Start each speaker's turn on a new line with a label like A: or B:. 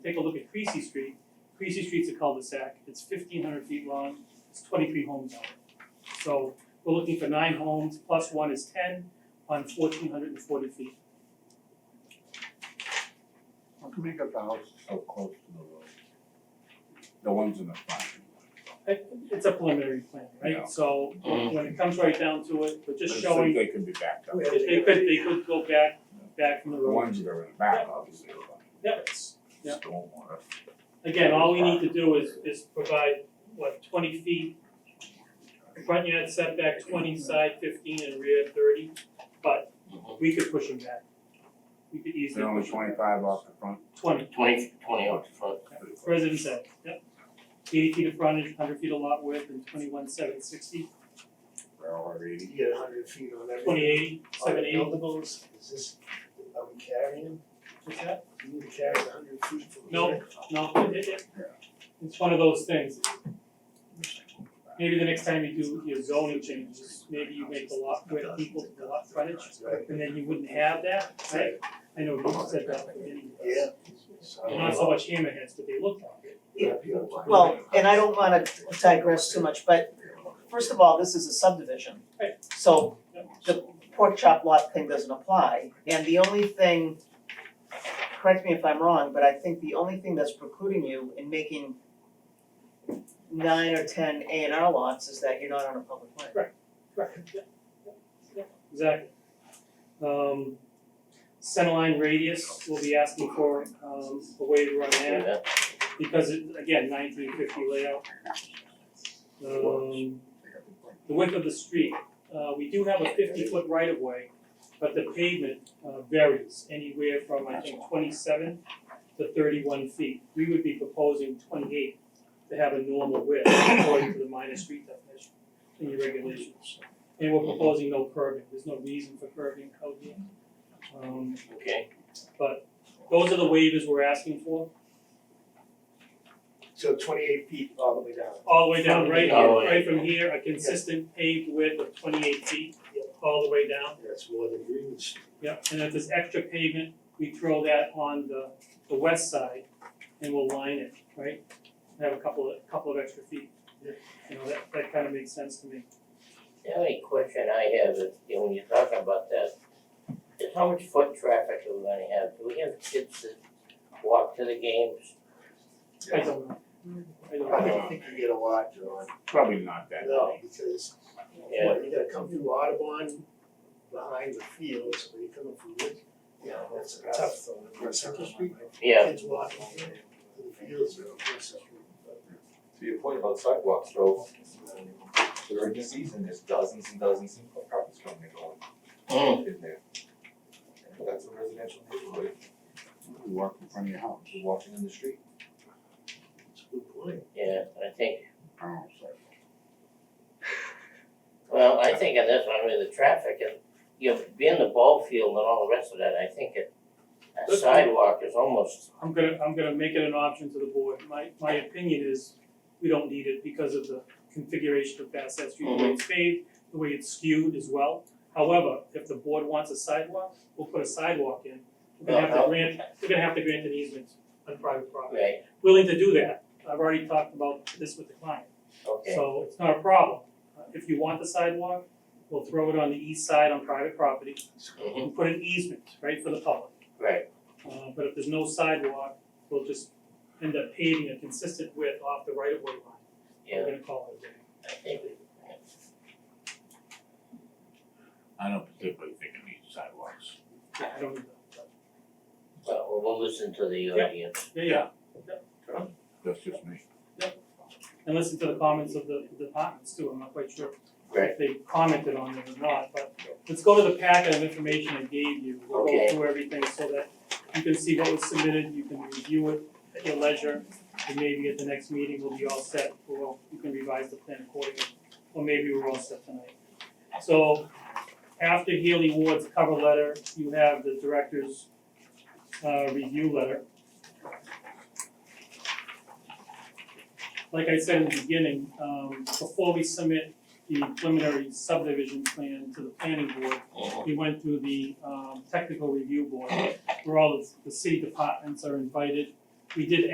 A: take a look at Creasy Street, Creasy Street's a cul-de-sac, it's fifteen hundred feet long, it's twenty-three homes on it. So we're looking for nine homes, plus one is ten, on fourteen hundred and forty feet.
B: How come you got the houses so close to the road? The ones in the front.
A: It- It's a preliminary plan,
B: Yeah.
A: right? So when it comes right down to it, we're just
B: Let's
A: showing,
B: think they could be backed up.
A: if they could, they could go back, back from the
B: The
A: road.
B: ones that are in the back, obviously, are
A: Yep, it's- Yeah.
B: like stormwater.
A: Again, all we need to do is, is provide, what, twenty feet? Front yard setback twenty, side fifteen, and rear thirty, but we could push them back. We could easily
B: They're only
A: push them back.
B: twenty-five off the front.
A: Twenty,
C: Twenty, twenty oh, out front.
A: resident said, yep. Eighty feet of frontage, hundred feet of lot width, and twenty-one, seven sixty,
B: They're all eighty.
D: You get a hundred feet on every.
A: twenty eighty, seven
D: On
A: eighty,
D: buildables, is this, are we carrying them?
A: what's that?
D: Do you carry a hundred feet from
A: No.
D: here?
A: No, it- it- it- it's one of those things, maybe the next time you do your zoning changes, maybe you make the lot width equal to the lot frontage,
D: Right.
A: and then you wouldn't have that, right? I know you said that for many years.
D: Yeah.
A: And Not so much hammerheads, but they look like it.
D: Yeah.
E: Well, and I don't wanna digress too much, but first of all, this is a subdivision.
A: Right.
E: So the pork chop lot thing doesn't apply, and the only thing, correct me if I'm wrong, but I think the only thing that's precluding you in making nine or ten A and R lots is that you're not on a public land.
A: Exactly. Um, centerline radius, we'll be asking for, um, a waiver on that,
C: Yeah.
A: because it, again, nineteen fifty layout. Um, the width of the street, uh, we do have a fifty foot right of way, but the pavement, uh, varies anywhere from, I think, twenty seven to thirty one feet. We would be proposing twenty eight to have a normal width according to the minor street definition in your regulations. And we're proposing no curbing, there's no reason for curbing out here. Um,
C: Okay,
A: those are the waivers we're asking for,
D: So twenty-eight feet all the way down.
A: all the way down, right
C: All the
A: here,
C: way.
A: right from here, a consistent paved width of twenty eight feet, all the way down.
D: That's more than Green Street.
A: Yep, and if there's extra pavement, we throw that on the, the west side and we'll line it, right? Have a couple of, couple of extra feet.
D: Yeah.
A: You know, that, that kind of makes sense to me.
C: the only question I have is, you know, when you're talking about that, is how much foot traffic are we gonna have? Do we have kids that walk to the games?
A: I don't know. I don't
D: I
A: know.
D: don't think you get a lot, John.
B: Probably not that
D: No,
B: many.
D: because
C: Yeah,
D: what, you gotta come through Audubon behind the fields, where you're coming from Wood. Yeah, that's a tough one. Central Street.
C: yeah,
D: Kids walk all the way to the fields or across the street.
F: To your point about sidewalks, though, during the season, there's dozens and dozens of properties coming and going
C: mm,
F: in there. And that's a residential neighborhood,
B: You walk in front of your house.
F: you're walking in the street.
D: It's a good point.
C: yeah, I think,
B: I don't know, so.
C: well, I think on this one, I mean, the traffic and, you know, being the ball field and all the rest of that, I think it, a sidewalk is almost,
A: I'm gonna, I'm gonna make it an option to the board. My, my opinion is we don't need it because of the configuration of Bassett Street,
C: Mm-hmm.
A: the way it's paved, the way it's skewed as well. However, if the board wants a sidewalk, we'll put a sidewalk in. We're gonna have to
C: Uh-huh.
A: grant, we're gonna have to grant an easement on private property.
C: right,
A: willing to do that. I've already talked about this with the client,
C: okay,
A: so it's not a problem. Uh, If you want the sidewalk, we'll throw it on the east side on private property
C: mhm,
A: and put an easement, right, for the public.
C: right,
A: Uh, but if there's no sidewalk, we'll just end up paving a consistent width off the right of way line.
C: yeah,
A: We're gonna call it a day.
C: I think we,
B: I don't particularly think it needs sidewalks.
A: I don't know.
C: well, we'll listen to the
A: Yeah.
C: audience,
A: Yeah, yeah,
B: That's just me.
A: and listen to the comments of the the departments too, I'm not quite sure
C: Right.
A: if they commented on it or not, but let's go to the packet of information I gave you. We'll go
C: Okay.
A: through everything so that you can see what was submitted, you can review it at your leisure. And maybe at the next meeting, we'll be all set, or you can revise the plan accordingly, or maybe we're all set tonight. So after Haley Ward's cover letter, you have the director's uh review letter. Like I said in the beginning, um before we submit the preliminary subdivision plan to the planning board,
C: Mhm.
A: we went through the um technical review board, where all the the city departments are invited we did